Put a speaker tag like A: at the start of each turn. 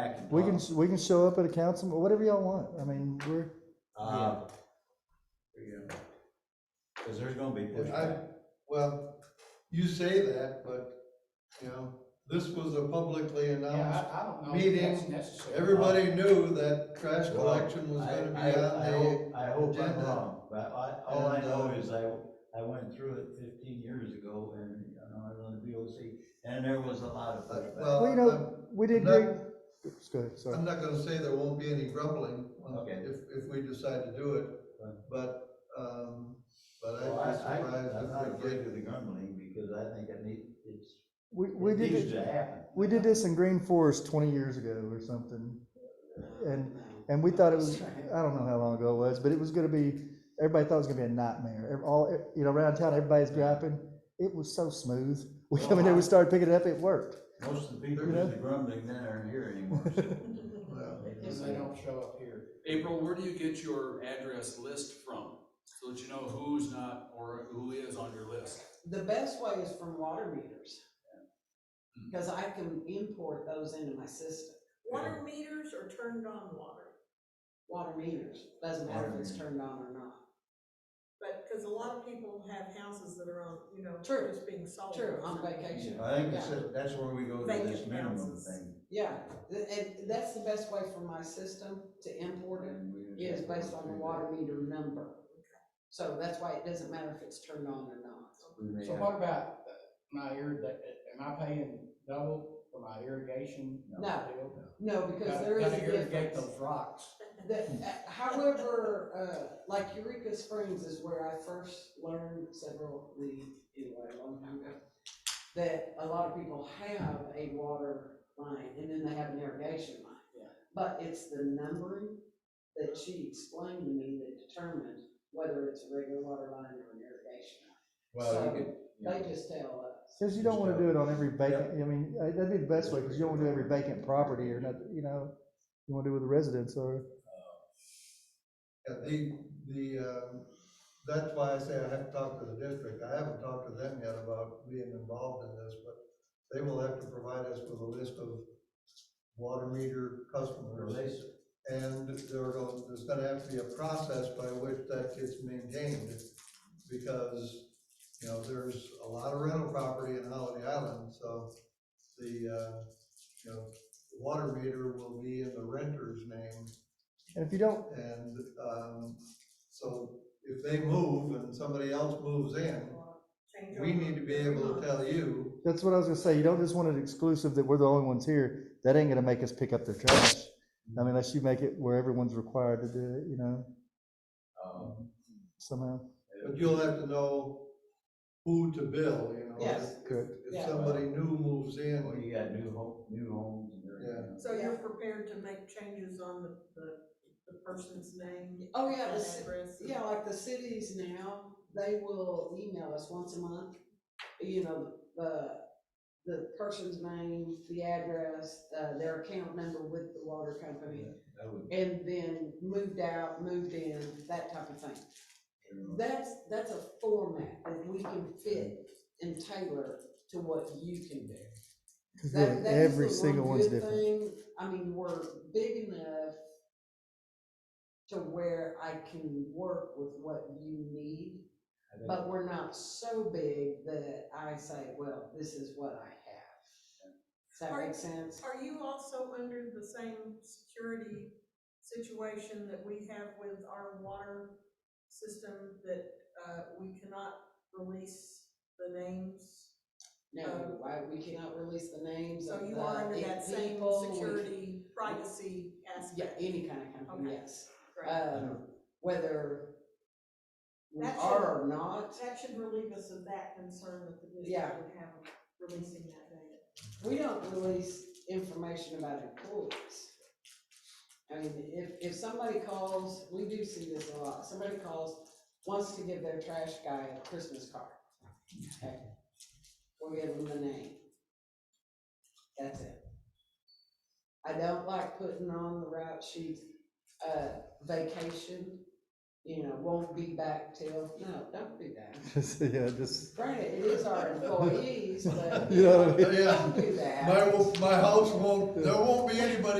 A: back and
B: We can,
A: talk.
B: we can show up at a council, whatever y'all want. I mean, we're,
A: Uh,
C: Yeah.
A: cause there's gonna be
C: And I,
A: pushback.
C: well, you say that, but, you know, this was a publicly announced,
D: Yeah, I, I don't know if that's
C: meeting.
D: necessary.
C: everybody knew that trash
A: Well,
C: collection was
A: I-
C: gonna be
A: I-
C: on
A: I
C: the,
A: hope- I hope I'm
C: agenda.
A: wrong, but I, all I
C: And,
A: know
C: uh,
A: is I, I went through it fifteen years ago and, you know, I was on the VOC, and there was a lot of
C: but,
A: pushback.
C: well,
B: Well, you know, we
C: I'm
B: did
C: not-
B: great. Oops, go ahead, sorry.
C: I'm not gonna say there won't be any grumbling when-
A: Okay.
C: if, if we decide to do it,
A: Right.
C: but, um, but
A: Well, I,
C: I'd be
A: I, I'm not
C: surprised if we
A: afraid
C: get.
A: of the grumbling, because I think it needs, it's,
B: We, we
A: it
B: did,
A: needs
B: it-
A: to happen.
B: we did this in Green Forest twenty years ago or something. And, and we thought it was, I don't know how long ago it was, but it was gonna be, everybody thought it was gonna be a nightmare. Ev- All, e, you know, around town, everybody's griping. It was so smooth. We come in there, we started picking it up, it worked.
A: Most of the people
B: You
A: do
B: know?
A: the grumbling then aren't here anymore, so.
C: Well,
D: If they don't show up here.
E: April, where do you get your address list from? So that you know who's not or who is on your list.
F: The best way is from water meters. Because I can import those into my system,
G: Water meters or turned on water?
F: water meters, doesn't matter if it's turned on or not.
G: But, because a lot of people have houses that are on, you know,
F: True.
G: just being sold.
F: True, on vacation,
A: I think that's, it. that's where we go to this
G: Vacant
A: minimum
G: houses.
A: thing.
F: yeah, th- and that's the best way for my system to import it,
A: and we
F: is
A: just have to
F: based on
A: do
F: the
A: that.
F: water meter number. So that's why it doesn't matter if it's turned on or not.
A: We may
D: So
A: have-
D: what about uh, my irrig, am I paying double for my irrigation?
F: No.
D: deal?
F: No, because
D: Gotta-
F: there is a
D: Gotta irrigate
F: difference.
D: those rocks.
F: The- uh, however, uh, like Eureka Springs is where I first learned several, the, anyway, a long time ago, that a lot of people have a water line and then they have an irrigation line.
D: Yeah.
F: But it's the numbering that she explained to me that determined whether it's a regular water line or an irrigation
A: Well, you
F: So-
A: could, you
F: line. They just tell us.
B: Cause you don't wanna do it on every vacant, I mean, uh, that'd be the best
A: That's
B: way, cause you don't wanna do every vacant property or not, you know, you wanna do where the residents are.
C: Yeah, the, the, um, that's why I say I have to talk to the district, I haven't talked to them yet about being involved in this, but they will have to provide us with a list of water meter customers.
A: Relation.
C: And there are, gonna- there's gonna have to be a process by which that gets maintained, because, you know, there's a lot of rental property in Holiday Island, so the, uh, you know, water meter will be in the renter's name,
B: And if you don't,
C: and, um, so if they move and somebody else moves in,
G: Change
C: we
G: over.
C: need to be able to tell you,
B: That's what I was gonna say. You don't just want it exclusive that we're the only ones here. That ain't gonna make us pick up their trash. I mean, unless you make it where everyone's required to do it, you know,
A: um,
B: somehow.
C: but you'll have to know who to bill, you know?
F: Yes.
B: Correct.
C: If
F: Yeah.
C: somebody new moves
A: Well,
C: in,
A: you got new home, new homes and everything.
G: So you're prepared to make changes on the, the, the person's name?
F: Oh, yeah,
G: and
F: the ci-
G: address?
F: Yeah, like the cities now, they will email us once a month, you know, the, the person's name, the address, uh, their account number with the water company,
A: That would-
F: and then moved out, moved in, that type of thing. That's, that's a format that we can fit and tailor to what you can do.
B: Because
F: That-
B: really,
F: that is
B: every
F: the
B: single
F: one
B: one's
F: good
B: different.
F: thing. I mean, we're big enough to where I can work with what you need,
A: I think-
F: but we're not so big that I say, well, this is what I have. Does that
G: Are-
F: make sense?
G: Are you also under the same security situation that we have with our water system that, uh, we cannot release the names?
F: No, I- we cannot release the names
G: uh, So
F: of the
G: you are under
F: the
G: that same
F: Uh, people, we-
G: security privacy
F: Yeah,
G: aspect?
F: any kind of company,
G: Okay.
F: yes.
G: Great.
F: Um, whether we
G: That
F: are or not,
G: That should relieve us of that concern that the
F: Yeah.
G: district would have releasing that data.
F: we don't release information about employees. I mean, if, if somebody calls, we do see this a lot, somebody calls, wants to give their trash guy a Christmas card. Okay, We'll give them the name. That's it. I don't like putting on the route sheet, uh, vacation, you know, won't be back till, no, don't do that.
B: Just, yeah, just,
F: Granted, it is our employees, but.
B: You know what I mean?
F: Don't do that.
C: my, my house won't, there won't be anybody